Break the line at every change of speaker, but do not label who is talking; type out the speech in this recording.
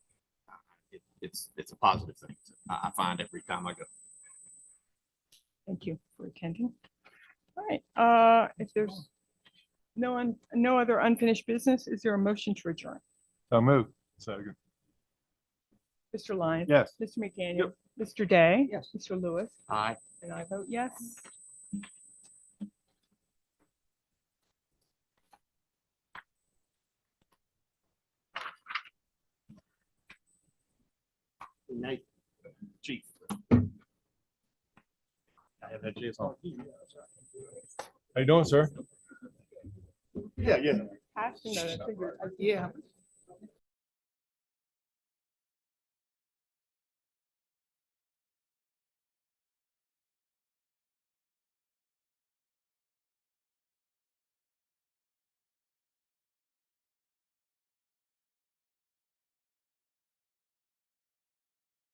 it, it's, it's a positive thing. I, I find every time I go.
Thank you for attending. All right, uh, if there's no one, no other unfinished business, is there a motion to adjourn?
So move. Second.
Mr. Lyons?
Yes.
Mr. McDaniel? Mr. Day?
Yes.
Mr. Lewis?
Aye.
And I vote yes.
Nate, chief. I have that chance on.
How you doing, sir?
Passed and noted. I figured- I-
Yeah.